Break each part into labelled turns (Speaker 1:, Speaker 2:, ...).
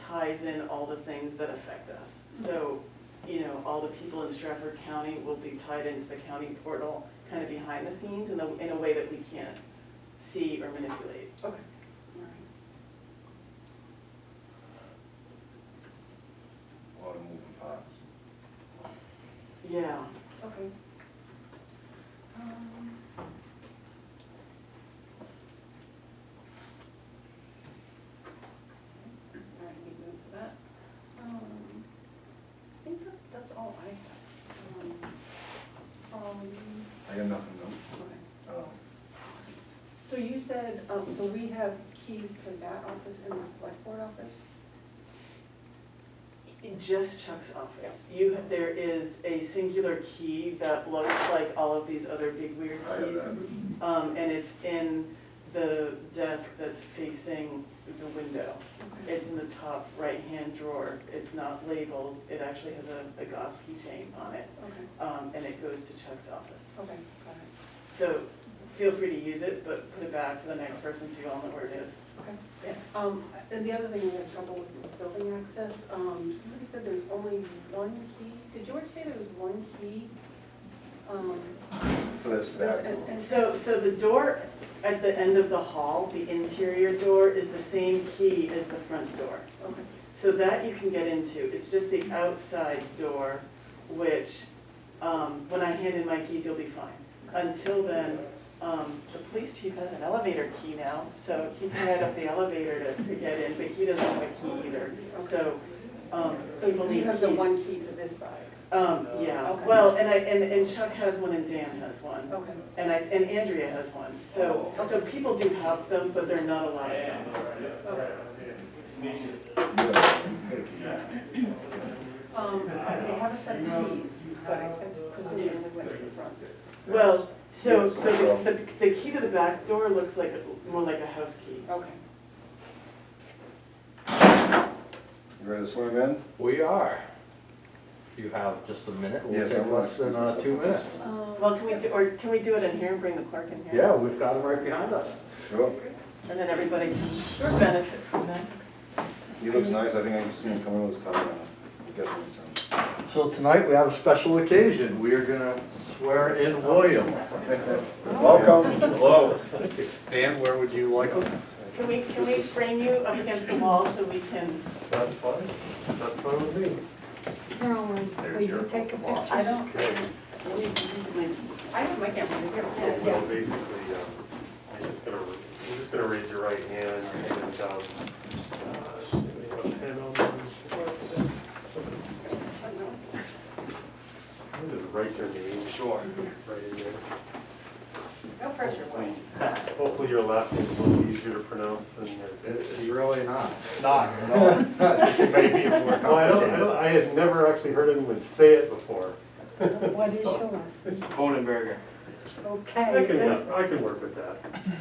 Speaker 1: ties in all the things that affect us. So, you know, all the people in Stratford County will be tied into the county portal, kind of behind the scenes in a, in a way that we can't see or manipulate.
Speaker 2: Okay.
Speaker 3: a lot of moving parts.
Speaker 1: Yeah,
Speaker 2: Okay. Um, All right, make notes of that. Um, I think that's, that's all I have. Um, Um,
Speaker 3: I got nothing new.
Speaker 2: okay.
Speaker 3: Um,
Speaker 2: So you said, um, so we have keys to that office and the select board office?
Speaker 1: in just Chuck's office. You, there is a singular key that looks like all of these other big weird
Speaker 3: I have
Speaker 1: keys.
Speaker 3: that.
Speaker 1: Um, and it's in the desk that's facing the window.
Speaker 2: Okay.
Speaker 1: It's in the top right-hand drawer. It's not labeled. It actually has a, a Goss keychain on it,
Speaker 2: Okay,
Speaker 1: um, and it goes to Chuck's office.
Speaker 2: okay, got it.
Speaker 1: So feel free to use it, but put it back for the next person so you all know where it is.
Speaker 2: Okay. Um, and the other thing we had trouble with was building access. Um, somebody said there's only one key. Did George say there was one key? Um,
Speaker 3: So that's
Speaker 2: this-
Speaker 3: back.
Speaker 2: and, and so,
Speaker 1: So, so the door at the end of the hall, the interior door, is the same key as the front door.
Speaker 2: okay,
Speaker 1: So that you can get into, it's just the outside door, which, um, when I hand in my keys, you'll be fine. Until then, um, the police chief has an elevator key now, so he can ride up the elevator to, to get in, but he doesn't have a key either. So, um,
Speaker 2: so
Speaker 1: so we'll
Speaker 2: you
Speaker 1: need
Speaker 2: have the
Speaker 1: keys.
Speaker 2: one key to this side?
Speaker 1: Um, yeah,
Speaker 2: Okay.
Speaker 1: well, and I, and, and Chuck has one and Dan has one,
Speaker 2: Okay,
Speaker 1: and I, and Andrea has one. So,
Speaker 2: Oh,
Speaker 1: so people do have them, but they're not a lot of them.
Speaker 2: okay.
Speaker 3: Yeah.
Speaker 2: Um, they have a set of keys, but I guess presumably they went to the front.
Speaker 1: Well, so, so the, the- the key to the back door looks like, more like a house key.
Speaker 2: Okay.
Speaker 3: You ready to swim in?
Speaker 4: We are. If you have just a minute, it will
Speaker 3: Yes, I
Speaker 4: take
Speaker 3: will.
Speaker 4: less than uh, two minutes.
Speaker 2: Um,
Speaker 1: Well, can we, do or can we do it in here and bring the clerk in here?
Speaker 4: Yeah, we've got them right behind us.
Speaker 3: Sure.
Speaker 1: And then everybody can benefit from this.
Speaker 3: He looks nice. I think I can see him coming with his car. I'm guessing it's him.
Speaker 4: So tonight, we have a special occasion. We are gonna swear in William.
Speaker 3: Welcome.
Speaker 4: Hello. Dan, where would you like us?
Speaker 1: Can we, can we frame you up against the wall so we can,
Speaker 4: That's fine. That's fine with me.
Speaker 5: Rollins, will
Speaker 4: your
Speaker 5: you take a
Speaker 4: walk.
Speaker 5: picture?
Speaker 2: I don't,
Speaker 4: Okay.
Speaker 1: like,
Speaker 2: I have my camera in here, so,
Speaker 1: Yeah.
Speaker 6: So basically, um, you're just gonna, you're just gonna raise your right hand and, um, uh, you have a pen on you? I'm gonna write your name. Sure. Right in there.
Speaker 2: no pressure, Wayne.
Speaker 6: Hopefully your last name is a little easier to pronounce than your.
Speaker 4: It's really not.
Speaker 7: It's not, no. It may be more
Speaker 6: Well, I don't, I
Speaker 7: complicated.
Speaker 6: don't, I had never actually heard anyone say it before.
Speaker 5: What is yours?
Speaker 7: Bonenberger.
Speaker 6: I
Speaker 5: Okay,
Speaker 6: can,
Speaker 5: let-
Speaker 6: I can work with that.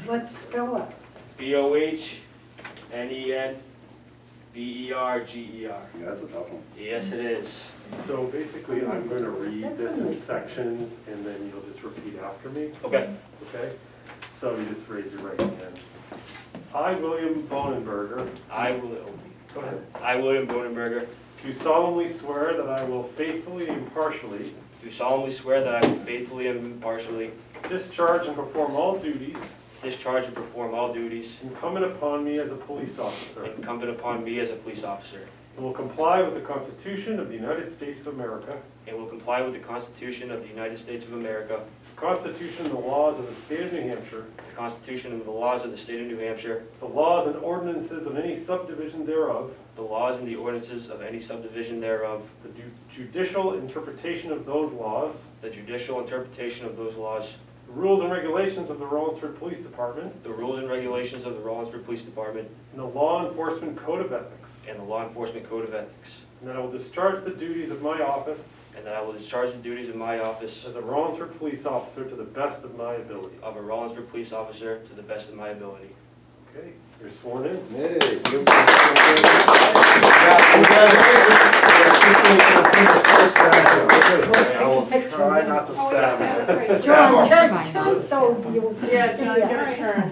Speaker 5: let's spell it.
Speaker 7: B O H N E N B E R G E R.
Speaker 3: Yeah, that's a tough one.
Speaker 7: Yes, it is.
Speaker 6: So basically, I'm gonna read
Speaker 5: That's
Speaker 6: this in
Speaker 5: nice.
Speaker 6: sections and then you'll just repeat after me.
Speaker 7: Okay.
Speaker 6: Okay, so you just raise your right hand. I, William Bonenberger,
Speaker 7: I, William,
Speaker 6: go ahead,
Speaker 7: I, William Bonenberger,
Speaker 6: do solemnly swear that I will faithfully and impartially
Speaker 7: do solemnly swear that I will faithfully and impartially
Speaker 6: discharge and perform all duties
Speaker 7: discharge and perform all duties
Speaker 6: incumbent upon me as a police officer, and
Speaker 7: incumbent upon me as a police officer,
Speaker 6: will comply with the Constitution of the United States of America,
Speaker 7: and will comply with the Constitution of the United States of America,
Speaker 6: the Constitution and the laws of the state of New Hampshire,
Speaker 7: the Constitution and the laws of the state of New Hampshire,
Speaker 6: the laws and ordinances of any subdivision thereof,
Speaker 7: the laws and the ordinances of any subdivision thereof,
Speaker 6: the ju- judicial interpretation of those laws,
Speaker 7: the judicial interpretation of those laws,
Speaker 6: the rules and regulations of the Rollinsford Police Department,
Speaker 7: the rules and regulations of the Rollinsford Police Department,
Speaker 6: and the law enforcement code of ethics.
Speaker 7: and the Law Enforcement Code of Ethics,
Speaker 6: And that I will discharge the duties of my office
Speaker 7: and that I will discharge the duties of my office
Speaker 6: as a Rollinsford police officer to the best of my ability.
Speaker 7: of a Rollinsford police officer to the best of my ability.
Speaker 6: Okay, you're sworn in.
Speaker 3: Hey. give us a-
Speaker 4: I will try not to
Speaker 5: John, turn, turn so you can see
Speaker 1: yeah, John, get a
Speaker 5: it.
Speaker 1: turn.